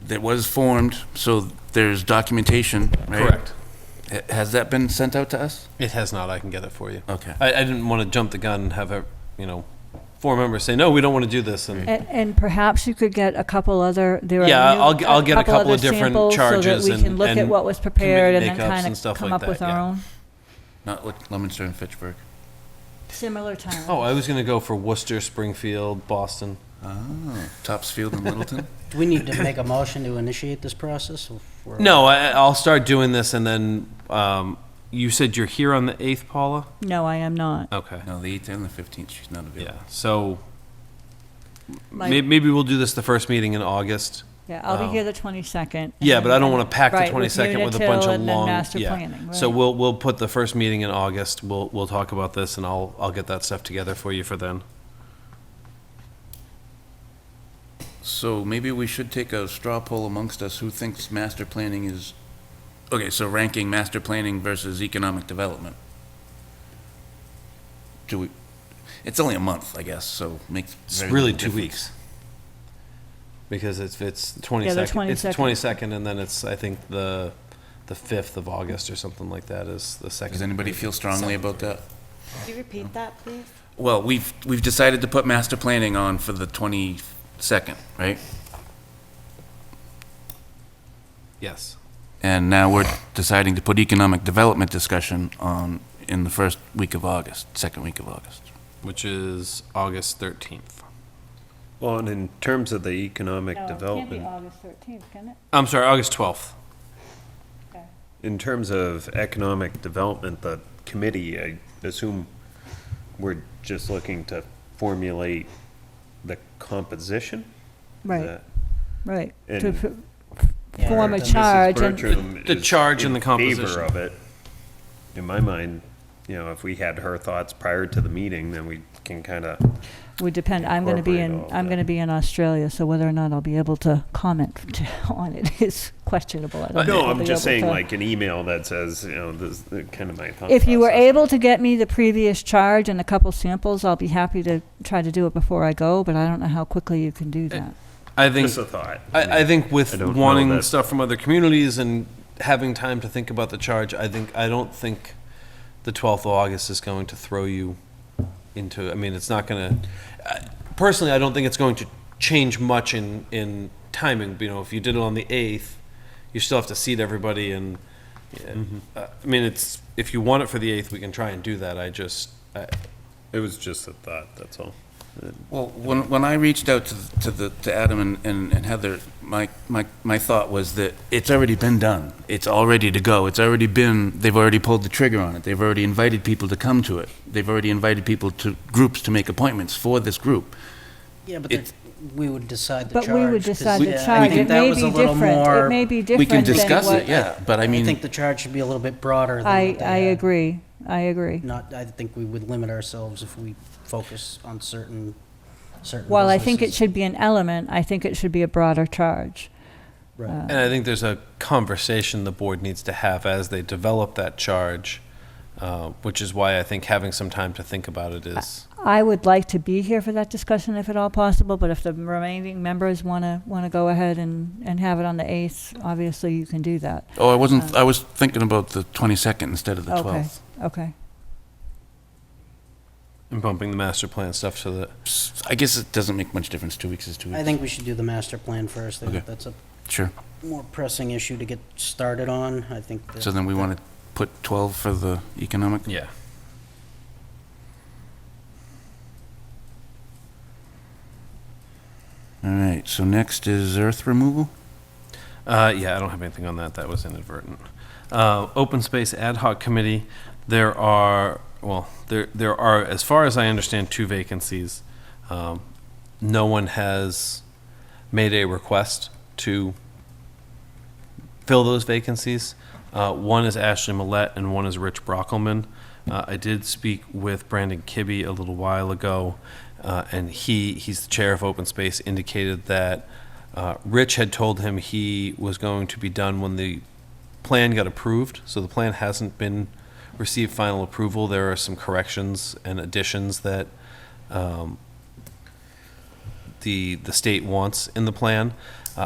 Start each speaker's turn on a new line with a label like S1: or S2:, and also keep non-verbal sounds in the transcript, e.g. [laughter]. S1: that was formed, so there's documentation, right?
S2: Correct.
S1: Ha- Has that been sent out to us?
S2: It has not. I can get it for you.
S1: Okay.
S2: I, I didn't want to jump the gun and have a, you know, four members say, no, we don't want to do this. And
S3: And, and perhaps you could get a couple other, there are.
S2: Yeah,
S3: new-
S2: I'll g- I'll get a couple of
S3: other
S2: different
S3: samples
S2: charges
S3: So that we can
S2: and-
S3: look at
S2: and
S3: what was prepared and
S2: committee
S3: then
S2: makeups
S3: kind
S2: and
S3: of
S2: stuff
S3: come
S2: like
S3: up
S2: that,
S3: with our
S2: yeah.
S3: own.
S1: Not like Lemonster and Fitchburg.
S3: Similar time.
S2: oh, I was going to go for Worcester, Springfield, Boston.
S1: Oh, Topsfield
S2: [laughs]
S1: and Littleton?
S4: Do we need to make a motion to initiate this process? or if we're-
S2: No, I, I'll start doing this, and then um, you said you're here on the eighth, Paula.
S3: No, I am not.
S2: Okay.
S1: No, the 8th and the 15th, she's not
S2: Yeah.
S1: available.
S2: So
S3: Like-
S2: may- maybe we'll do this the first meeting in August.
S3: Yeah, I'll
S2: Oh.
S3: be here the 22nd.
S2: Yeah, but I don't want to pack the
S3: Right, with
S2: twenty second with a bunch
S3: Unitil
S2: of
S3: and then
S2: long.
S3: master
S2: yeah.
S3: planning,
S2: So
S3: right.
S2: we'll we'll put the first meeting in August. We'll we'll talk about this, and I'll I'll get that stuff together for you for then.
S1: So maybe we should take a straw poll amongst us, who thinks master planning is, okay, so ranking master planning versus economic development. Do we, it's only a month, I guess, so makes.
S2: It's
S1: very
S2: really
S1: little
S2: two
S1: difference.
S2: weeks. Because it's it's twenty second. It's
S3: 22nd.
S2: twenty second, and then it's I think the the fifth of August or something like that is the second.
S1: Does anybody
S2: meeting.
S1: feel strongly about that?
S5: Could you repeat that, please?
S1: Well, we've, we've decided to put master planning on for the 22nd, right?
S2: Yes.
S1: And now we're deciding to put economic development discussion on in the first week of August, second week of August.
S2: Which is August thirteenth.
S6: Well, and in terms of the economic development,
S3: August 13th, can it?
S2: I'm sorry, August twelfth.
S6: in terms of economic development, the committee, I assume we're just looking to formulate the composition?
S3: Right, right. To
S6: And-
S3: pr-
S4: Yeah.
S3: Form a
S4: Mrs.
S3: charge and,
S6: Bertram
S2: The- the
S6: is
S2: charge and
S6: in
S2: the composition.
S6: Favor of it. In my mind, you know, if we had her thoughts prior to the meeting, then we can kind of
S3: would depend, I'm going to be in,
S6: Incorporate all
S3: I'm
S6: that.
S3: going to be in Australia, so whether or not I'll be able to comment [laughs] on it is questionable. I don't know
S6: No,
S3: if I'll
S6: I'm
S3: be
S6: just
S3: able
S6: saying
S3: to-
S6: like an email that says, you know, this, kind of my thought.
S3: If you were
S6: process.
S3: able to get me the previous charge and a couple samples, I'll be happy to try to do it before I go, but I don't know how quickly you can do
S4: Uh,
S3: that.
S2: I think
S6: Just a thought.
S2: I, I think
S6: I
S2: with
S6: don't know
S2: wanting
S6: that-
S2: stuff from other communities and having time to think about the charge, I think, I don't think the 12th of August is going to throw you into, I mean, it's not going to, personally, I don't think it's going to change much in, in timing. You know, if you did it on the 8th, you still have to seat everybody and,
S6: Mm-hmm.
S2: uh, I mean, it's, if you want it for the 8th, we can try and do that. I just, I,
S6: It was just a thought, that's all.
S1: Well, when, when I reached out to, the- to the, to Adam and- and, and Heather, my, my, my thought was that it's already been done. It's all ready to go. It's already been, they've already pulled the trigger on it. They've already invited people to come to it. They've already invited people to, groups to make appointments for this group.
S4: Yeah, but there-
S1: It's-
S4: we would decide the
S3: But we
S4: charge.
S3: would
S4: 'cause,
S3: decide
S4: yeah,
S3: the
S4: I
S3: charge.
S4: think
S3: It
S4: that
S3: may
S4: was a
S3: be
S4: little
S3: different. It
S4: more-
S3: may be
S1: We
S3: different
S1: can
S3: than
S1: discuss
S3: what-
S1: it, yeah, but I
S4: I
S1: mean,
S4: think the charge should be a little bit broader than
S3: I,
S4: what they
S3: I
S4: had.
S3: agree. I agree.
S4: Not, I think we would limit ourselves if we focus on certain, certain.
S3: While I think it
S4: businesses.
S3: should be an element, I think it should be a broader charge. uh,
S4: Right.
S2: And I think there's a conversation the board needs to have as they develop that charge, uh, which is why I think having some time to think about it is.
S3: I would like to be here for that discussion if at all possible, but if the remaining members want to, want to go ahead and, and have it on the 8th, obviously you can do that.
S1: oh, I wasn't, I was thinking about the 22nd instead of the
S3: Okay,
S1: 12th.
S3: okay.
S2: And bumping the master plan stuff so that.
S1: I guess it doesn't make much difference. Two weeks is two
S4: I
S1: weeks.
S4: think we should do the master plan first. I think
S1: Okay.
S4: That's a
S1: Sure.
S4: more pressing issue to get started on. I think that.
S1: So then we want to put 12 for the economic?
S2: Yeah.
S1: All right, so next is earth removal?
S2: Uh, yeah, I don't have anything on that. That was inadvertent. Uh, open space ad hoc committee. There are well, there there are, as far as I understand, two vacancies. Um, no one has made a request to fill those vacancies. Uh, one is Ashley Millette and one is Rich Brockelman. Uh, I did speak with Brandon Kibbe a little while ago, uh, and he he's the chair of open space. Indicated that. Uh, Rich had told him he was going to be done when the plan got approved, so the plan hasn't been received final approval. There are some corrections and additions that um, the the state wants in the plan. Uh,